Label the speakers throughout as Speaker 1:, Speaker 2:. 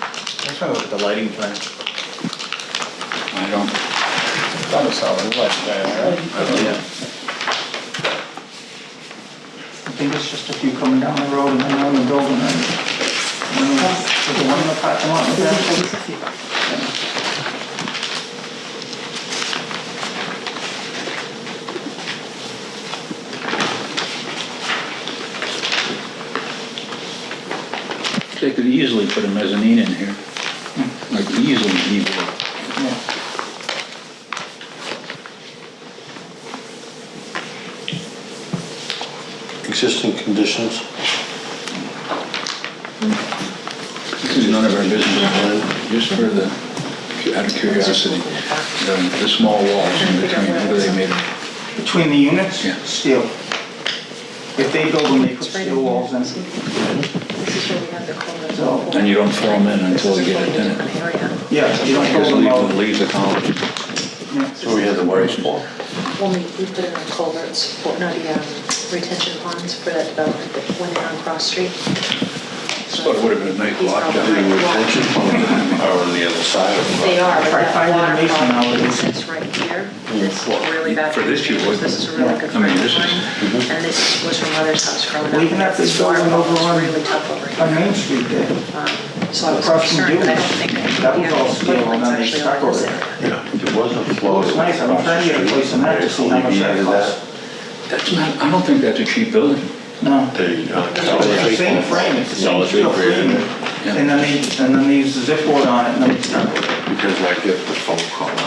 Speaker 1: trying to look at the lighting plan.
Speaker 2: I don't, Oh,
Speaker 1: Thought I saw the light there, right?
Speaker 2: I don't know.
Speaker 1: I think it's just a few coming down the road and then one in the building and and then there's one in the parking lot. and then-
Speaker 2: They could easily put a mezzanine in here, like easily easily.
Speaker 1: Yeah.
Speaker 3: Existing conditions.
Speaker 2: This is none of our business, just for the, out of curiosity, the, the small walls in between, what are they made of?
Speaker 1: Between the units,
Speaker 2: Yeah.
Speaker 1: steel. If they build them, they put
Speaker 4: It's right
Speaker 1: steel
Speaker 4: in
Speaker 1: walls in.
Speaker 4: here. This is where we have the corner.
Speaker 1: So-
Speaker 2: And you don't throw them in until you get it
Speaker 4: This is
Speaker 2: in it.
Speaker 4: a totally different area.
Speaker 1: Yeah, you don't
Speaker 2: Just
Speaker 1: build them
Speaker 2: leave,
Speaker 1: out.
Speaker 2: leave the column.
Speaker 1: Yeah.
Speaker 3: So we had the wires for.
Speaker 4: When we, we put in our culverts, for- not the um, retention ponds for that development that went in on Cross Street.
Speaker 2: But it would have been a nice
Speaker 4: These
Speaker 2: lot,
Speaker 4: are all
Speaker 3: The
Speaker 4: high walls.
Speaker 3: retention ponds are on the other side of
Speaker 4: They
Speaker 3: the
Speaker 4: are, but
Speaker 1: Try to
Speaker 4: that
Speaker 1: find
Speaker 4: water
Speaker 1: innovation
Speaker 4: quality
Speaker 1: nowadays.
Speaker 4: that's right here, this
Speaker 3: Well,
Speaker 4: is really bad.
Speaker 2: for this you wouldn't.
Speaker 4: conditions. This is a really
Speaker 2: I
Speaker 4: good
Speaker 2: mean,
Speaker 4: friend
Speaker 2: this
Speaker 4: of
Speaker 2: is- Mm-hmm.
Speaker 4: mine, and this was from mother's house growing up.
Speaker 1: Well, even at this
Speaker 4: This water
Speaker 1: building over
Speaker 4: quality
Speaker 1: on-
Speaker 4: is really tough over here.
Speaker 1: On Main Street there,
Speaker 4: Um, So I was
Speaker 1: across from
Speaker 4: concerned, but I don't
Speaker 1: Dewey's,
Speaker 4: think.
Speaker 1: that was all
Speaker 4: yeah,
Speaker 1: steel, and then they
Speaker 4: it's actually
Speaker 1: stuck
Speaker 4: on this
Speaker 1: over it.
Speaker 4: area.
Speaker 3: It wasn't flow.
Speaker 1: looks nice, I'm trying to get a place in that to see how much that costs.
Speaker 2: That's not, I don't think that's a cheap building.
Speaker 1: No.
Speaker 3: They, uh,
Speaker 1: It's the same frame, it's the same steel frame.
Speaker 2: Yeah.
Speaker 1: And then they, and then they use the zip board on it and then it's stuck with it.
Speaker 3: because I get the phone call now.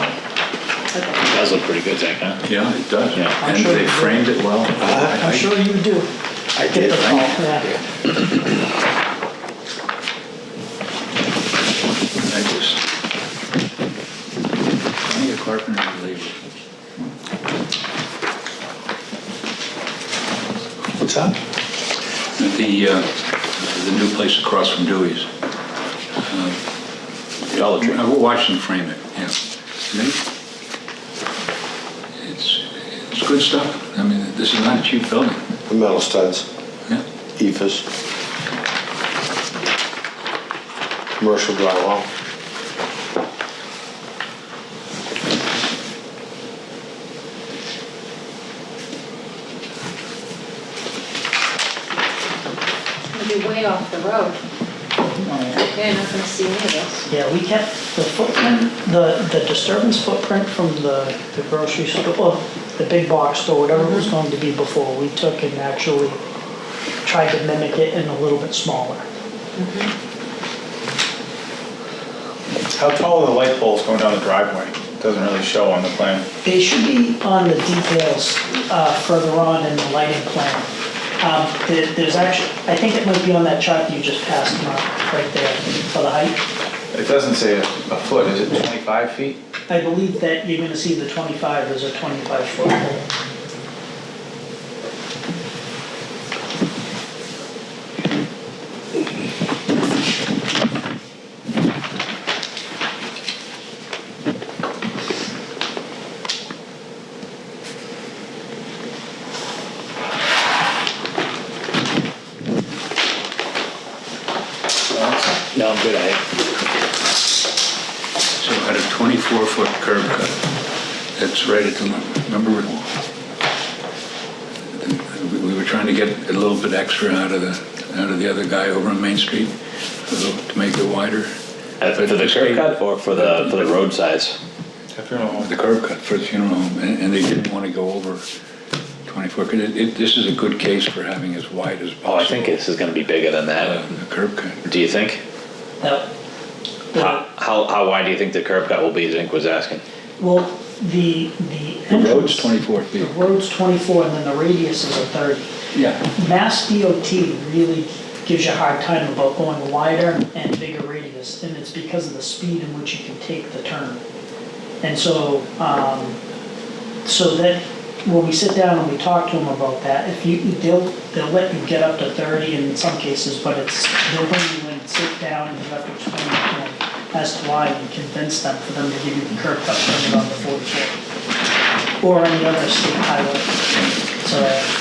Speaker 4: Okay.
Speaker 5: Does look pretty good, Zach, huh?
Speaker 2: Yeah, it does.
Speaker 5: Yeah.
Speaker 2: And they framed it well.
Speaker 6: Uh, I'm sure you do. I get the call, yeah.
Speaker 2: I just. I need a carpenter to leave.
Speaker 6: What's that?
Speaker 2: The, uh, the new place across from Dewey's. Dollar Tree. I watched them frame it, yeah. And they- It's, it's good stuff. I mean, this is not a cheap building,
Speaker 3: The E metal studs,
Speaker 2: yeah.
Speaker 3: EFS. Commercial drywall.
Speaker 4: It'd be way off the road. You're not gonna see any of this.
Speaker 6: Yeah, we kept the footprint, the, the disturbance footprint from the the grocery store, well, the big box store, whatever it was going to be before, we took and actually tried to mimic it in a little bit smaller.
Speaker 1: How tall are the light poles going down the driveway? Doesn't really show on the plan.
Speaker 6: They should be on the details uh, further on in the lighting plan. Um, there- There's actually, I think it might be on that chart you just passed, Mark, right there for the height.
Speaker 7: It doesn't say a a foot, is it 25 feet?
Speaker 6: I believe that you're gonna see the 25 as a 25-foot pole.
Speaker 5: No, I'm good, I,
Speaker 2: So had a 24-foot curb cut. That's right at the, remember, we- we were trying to get a little bit extra out of the, out of the other guy over on Main Street a little- to make it wider.
Speaker 5: Uh, for the curb cut or for the, for the road size?
Speaker 2: The curb cut for the funeral home, and and they didn't want to go over 24. 'cause it- it- This is a good case for having as wide as possible.
Speaker 5: Oh, I think this is gonna be bigger than
Speaker 2: uh,
Speaker 5: that,
Speaker 2: The curb cut.
Speaker 5: do you think?
Speaker 6: Now,
Speaker 5: How,
Speaker 6: the-
Speaker 5: how, how wide do you think the curb cut will be, Zink was asking?
Speaker 6: well, the, the
Speaker 2: The road's
Speaker 6: entrance-
Speaker 2: 24 feet.
Speaker 6: The road's 24, and then the radius is a 30.
Speaker 2: Yeah.
Speaker 6: Mass DOT really gives you a hard time about going wider and bigger radius, and it's because of the speed in which you can take the turn. And so, um, so that, when we sit down and we talk to them about that, if you, they'll, they'll let you get up to thirty in some cases, but it's, they'll bring you in and sit down and you have to explain to them as to why and convince them for them to give you the curb cut permit on the forty-four. Or any other state highway, so.